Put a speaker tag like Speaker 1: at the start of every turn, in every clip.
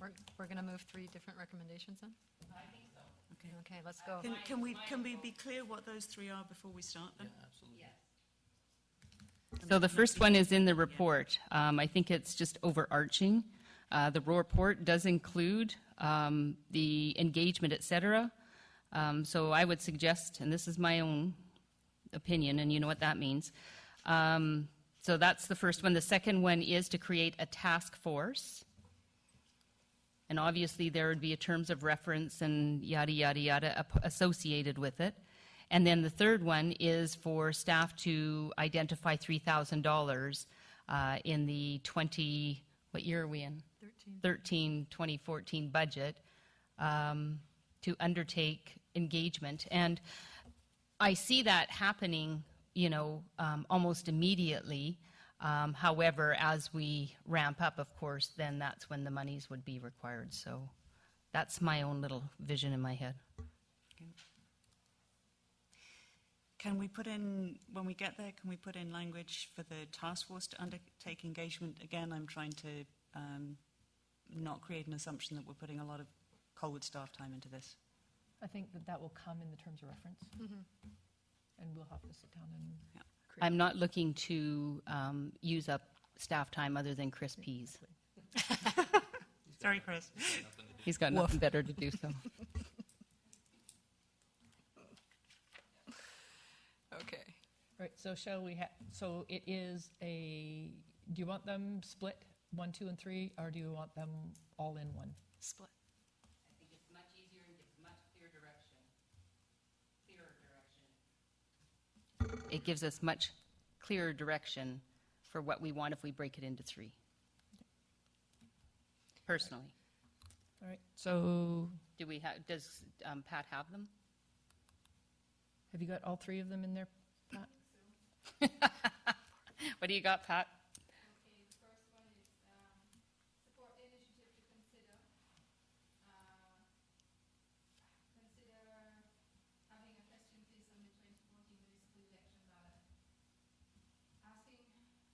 Speaker 1: We're, we're going to move three different recommendations then? I think so. Okay, let's go.
Speaker 2: Can, can we, can we be clear what those three are before we start them?
Speaker 3: So the first one is in the report. Um, I think it's just overarching. Uh, the report does include, um, the engagement, et cetera. Um, so I would suggest, and this is my own opinion, and you know what that means. Um, so that's the first one. The second one is to create a task force. And obviously, there would be a terms of reference and yada, yada, yada ap- associated with it. And then the third one is for staff to identify $3,000 uh, in the 20, what year are we in?
Speaker 1: 13.
Speaker 3: 13, 2014 budget um, to undertake engagement. And I see that happening, you know, um, almost immediately. Um, However, as we ramp up, of course, then that's when the monies would be required. So that's my own little vision in my head.
Speaker 2: Can we put in, when we get there, can we put in language for the task force to undertake engagement? Again, I'm trying to um, not create an assumption that we're putting a lot of Colwood staff time into this.
Speaker 4: I think that that will come in the terms of reference. And we'll have to sit down and.
Speaker 2: Yeah.
Speaker 4: create-
Speaker 3: I'm not looking to um, use up staff time other than Chris Pease.
Speaker 2: Sorry, Chris.
Speaker 3: He's got nothing better to do, so.
Speaker 1: Okay.
Speaker 4: Right, so shall we ha, so it is a, do you want them split, one, two, and three, or do you want them all in one?
Speaker 1: Split.
Speaker 5: I think it's much easier and gives much clear direction. Clearer direction.
Speaker 3: It gives us much clearer direction for what we want if we break it into three. Personally.
Speaker 4: All right, so
Speaker 3: Do we have, does um, Pat have them?
Speaker 4: have you got all three of them in there? Pat?
Speaker 3: What do you got, Pat?
Speaker 5: Okay, the first one is, um, support the initiative to consider, uh, consider having a question piece on the twenty fourteen municipal election ballot. Asking Harvard residents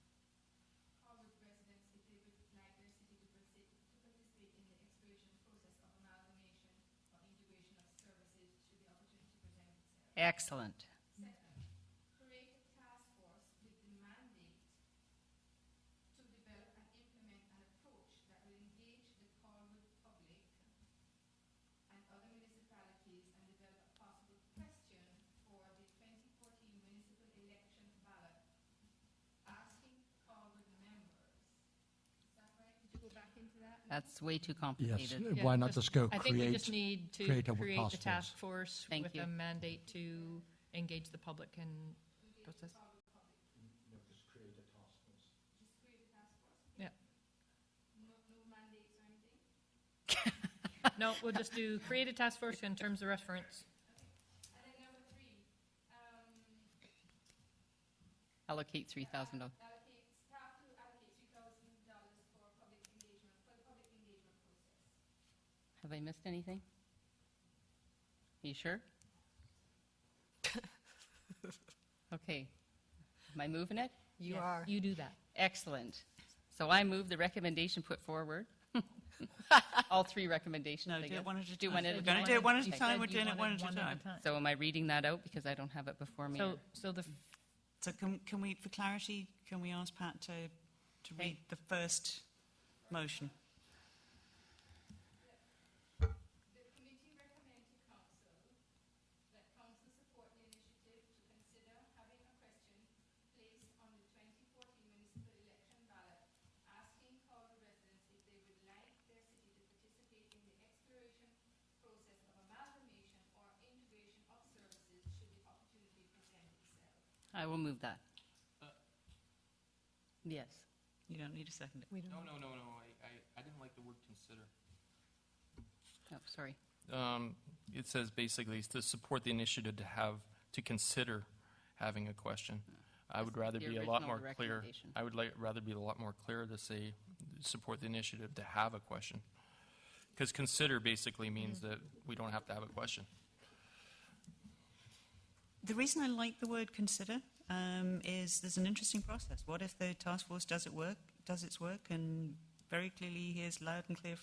Speaker 5: if they would like their city to participate, to participate in the exploration process of amalgamation or integration of services should the opportunity present itself.
Speaker 3: Excellent.
Speaker 5: Second, create a task force with the mandate to develop and implement an approach that will engage the Cornwall public and other municipalities and develop a possible question for the 2014 municipal election ballot, asking Cornwall members. Is that right? Did you go back into that?
Speaker 3: That's way too
Speaker 6: Yes,
Speaker 3: complicated.
Speaker 6: why
Speaker 4: Yeah,
Speaker 6: not just go
Speaker 4: I think we just
Speaker 6: create?
Speaker 4: need to
Speaker 6: create a
Speaker 4: create the
Speaker 6: task
Speaker 4: task force
Speaker 3: Thank
Speaker 4: with
Speaker 3: you.
Speaker 4: a mandate to engage the public and process. Yeah. No, we'll just do create a task force in terms of reference.
Speaker 5: And then number three, um,
Speaker 3: Allocate $3,000.
Speaker 5: allocate, staff to allocate three thousand dollars for public engagement, for the public engagement process.
Speaker 3: Have I missed anything? You sure? Okay. Am I moving it?
Speaker 1: You
Speaker 4: Yes,
Speaker 1: are.
Speaker 4: You do that.
Speaker 3: Excellent. So I move the recommendation put forward. All three recommendations,
Speaker 2: No,
Speaker 3: I
Speaker 2: do it
Speaker 3: guess.
Speaker 2: one at a
Speaker 3: Do
Speaker 2: time.
Speaker 3: one at a
Speaker 2: We're
Speaker 3: time.
Speaker 2: gonna do it one at a
Speaker 3: Okay.
Speaker 2: time. We're
Speaker 4: You
Speaker 2: doing it
Speaker 4: wanted
Speaker 2: one at a time.
Speaker 3: So am I reading that out because I don't have it before me?
Speaker 4: So, so the,
Speaker 2: So can, can we, for clarity, can we ask Pat to, to read the first motion?
Speaker 5: The committee recommends to council that council support the initiative to consider having a question placed on the twenty fourteen municipal election ballot, asking Cornwall residents if they would like their city to participate in the exploration process of amalgamation or integration of services should the opportunity present itself.
Speaker 3: I will move that. Yes.
Speaker 2: You don't need a second.
Speaker 1: We don't.
Speaker 7: No, no, no, no, I, I, I didn't like the word consider.
Speaker 3: Oh, sorry.
Speaker 7: Um, it says basically to support the initiative to have, to consider having a question. I would
Speaker 3: Just
Speaker 7: rather
Speaker 3: the
Speaker 7: be a lot
Speaker 3: original
Speaker 7: more clear.
Speaker 3: recommendation.
Speaker 7: I would like, rather be a lot more clear to say, support the initiative to have a question. Because consider basically means
Speaker 3: Mm-hmm.
Speaker 7: that we don't have to have a question.
Speaker 2: The reason I like the word consider um, is there's an interesting process. What if the task force does it work, does its work, and very clearly hears loud and clear